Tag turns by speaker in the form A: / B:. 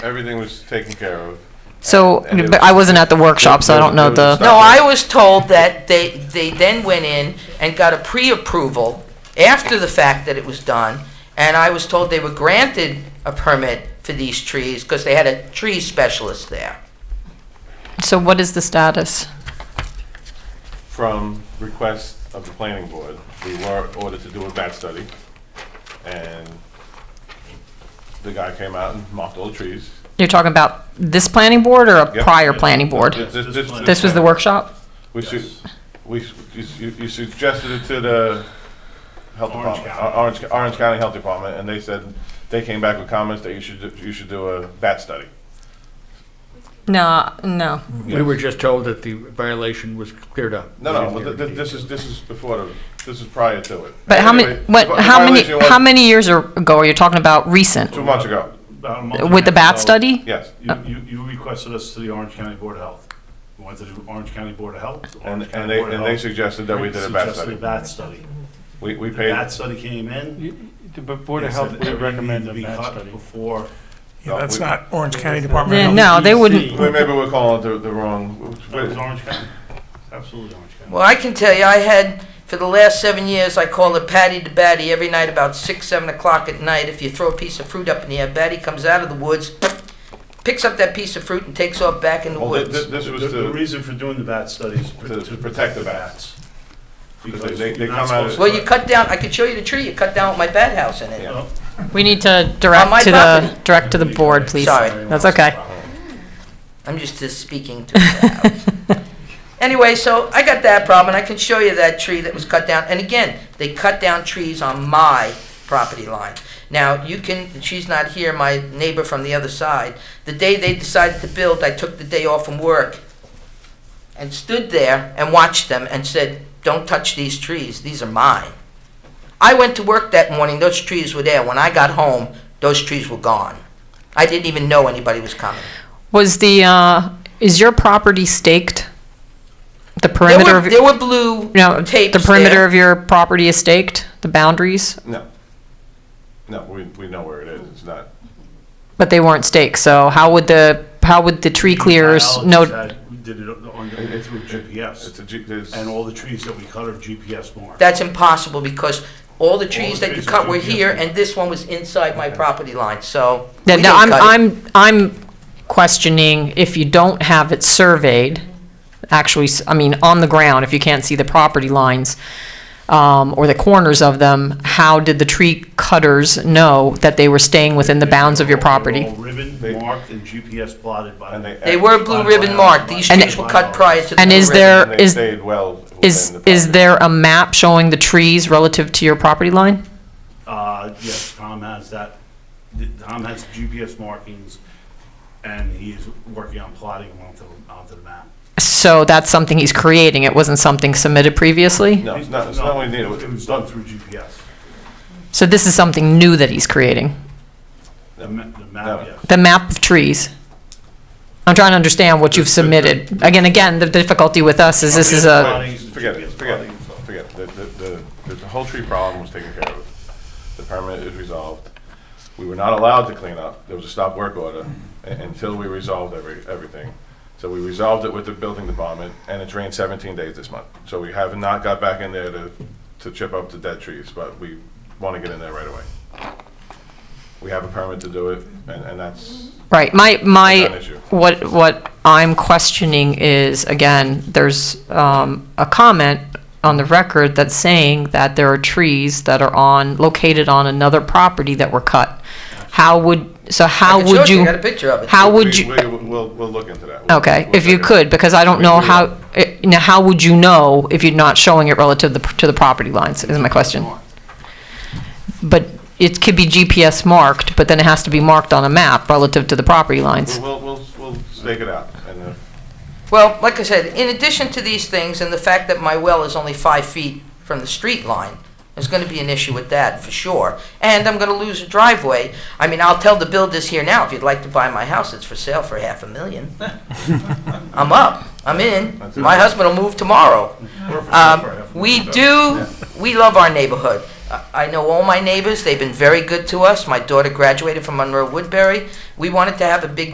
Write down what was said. A: Everything was taken care of.
B: So,
A: And- and it
B: but I
A: was-
B: wasn't at the workshop, so I don't know
A: There was-
B: the.
A: there
C: No, I was told that they, they then went in and got a pre-approval after the fact that it was done, and I was told they were granted a permit for these trees, because they had a tree specialist there.
B: So what is the status?
A: From request of the planning board, we were ordered to do a bat study. And the guy came out and mocked all the trees.
B: You're talking about this planning board or a
A: Yep.
B: prior planning
A: This-
B: board?
A: this- this-
B: This was the workshop?
A: We su- we, su- you su- you suggested it to the health department, Or- Orange, Orange County Health Department, and they said, they came back with comments that you should, do- you should do a bat study.
B: No, no.
D: We were just told that the violation was cleared up.
A: No, no, but th- th- this is, this is before the, this is prior to it.
B: But how many,
A: Anyway,
B: what,
A: the vi-
B: how many,
A: violation was
B: how many years are- ago are you talking about recent?
A: Two months ago,
E: About a month and
B: With the
E: a
B: bat
E: half ago,
B: study?
A: yes.
E: You, you- you requested us to the Orange County Board of Health. We went to the Orange County Board of Health.
A: And,
E: Orange County
A: and they,
E: Board of
A: and they
E: Health
A: suggested that we did a bat
E: suggested
A: study.
E: a bat study.
A: We, we
E: The
A: paid,
E: bat study came in.
F: But Board of
E: They
F: Health
E: said
F: would
E: everything
F: recommend
E: to
F: a
E: be
F: batch
E: cut
F: study.
E: Before.
A: No,
G: Yeah, that's
A: we-
G: not Orange County
B: Yeah,
G: Department of Health.
B: no, they wouldn't-
A: Wait, maybe we're calling it the, the wrong,
E: That was
A: wait,
E: Orange County. Absolutely Orange County.
C: Well, I can tell you, I had, for the last seven years, I call it Patty the Batty every night about six, seven o'clock at night. If you throw a piece of fruit up in the air, Batty comes out of the woods, picks up that piece of fruit and takes off back in the
A: well, thi- thi-
C: woods.
A: this
E: The,
A: was
E: the
A: to,
E: reason for doing the bat study is pr-
A: to- to protect the bats.
E: Because
A: They- they- they
E: you're not
A: come out of-
E: supposed to-
C: Well, you cut down, I could show you the tree you cut down with my bat house in it.
A: Yeah.
E: Oh,
B: We need to
C: On my
B: direct to the,
C: property.
B: direct to the board, please.
C: Sorry.
B: That's okay.
C: I'm just just speaking to the crowd. Anyway, so I got that problem, and I can show you that tree that was cut down. And again, they cut down trees on my property line. Now, you can, she's not here, my neighbor from the other side. The day they decided to build, I took the day off from work and stood there and watched them and said, "Don't touch these trees. These are mine." I went to work that morning, those trees were there. When I got home, those trees were gone. I didn't even know anybody was coming.
B: Was the, uh, is your property staked? The
C: There
B: perimeter
C: were,
B: of,
C: there were blue
B: no,
C: tapes
B: the perimeter
C: there.
B: of your property is staked, the boundaries,
A: No. No, we, we know where it is, it's not,
B: but they weren't staked, so how would the, how would the tree clearers
E: Biologists
B: know?
E: had- We did it on, the- through
A: it's
E: GPS,
A: a G, there's,
E: and all the trees that we cut are GPS marked.
C: That's impossible because all the trees that you
E: trees
C: cut
E: were
C: were here
E: here.
C: and this one was inside my property line, so.
B: Yeah,
C: we
B: no,
C: didn't
B: I'm,
C: cut it.
B: I'm, I'm questioning if you don't have it surveyed, actually, s- I mean, on the ground, if you can't see the property lines, um, or the corners of them, how did the tree cutters know that they were staying within the bounds of your
E: They're all-
B: property?
E: they're all Ribbon marked and GPS plotted by.
A: and they.
C: They were blue ribbon marked. These
B: And-
C: trees were cut prior to the.
B: And
C: blue
B: is
C: ribbon.
B: there-
A: And they
B: is-
A: stayed well.
B: Is,
A: within the
B: is
A: property.
B: there a map showing the trees relative to your property line?
E: Uh, yes, Tom has that, th- Tom has GPS markings, and he's working on plotting them onto, onto the map.
B: So that's something he's creating, it wasn't something submitted previously?
A: No, it's not, it's not what we need,
E: It was done through GPS.
B: So this is something new that he's creating,
E: The ma- the
A: No.
E: map, yes.
B: the map of trees? I'm trying to understand what you've submitted. Again, again, the difficulty with us is this is a,
E: Plotting is
A: forget it,
E: GPS
A: forget it,
E: plotting.
A: forget it. The, the, the, the whole tree problem was taken care of. The permit is resolved. We were not allowed to clean up. There was a stop work order u- until we resolved every, everything. So we resolved it with the building department and it's rained seventeen days this month. So we have not got back in there to, to chip up the dead trees, but we want to get in there right away. We have a permit to do it and, and that's,
B: right, my, my,
A: issue.
B: what, what I'm questioning is, again, there's, um, a comment on the record that's saying that there are trees that are on, located on another property that were cut. How would, so
C: I
B: how
C: can show
B: would you,
C: I got a picture of it.
B: how
A: we-
B: would you?
A: we- We'll, we'll look into that. We'll-
B: Okay,
A: we'll
B: if you
A: figure it out.
B: could, because I don't
A: We-
B: know
A: we will.
B: how, eh, now, how would you know if you're not showing it relative to the- to the property lines, is my question. But it could be GPS marked, but then it has to be marked on a map relative to the property lines.
A: We'll, we'll, we'll stake it out and uh,
C: Well, like I said, in addition to these things and the fact that my well is only five feet from the street line, there's gonna be an issue with that for sure. And I'm gonna lose a driveway. I mean, I'll tell the builders here now, if you'd like to buy my house, it's for sale for half a million. I'm up, I'm in. My husband will move tomorrow.
E: We're for-
C: Um,
E: we're for-
C: we do, we love our neighborhood. I- I know all my neighbors, they've been very good to us. My daughter graduated from Monroe Woodbury. We wanted to have a big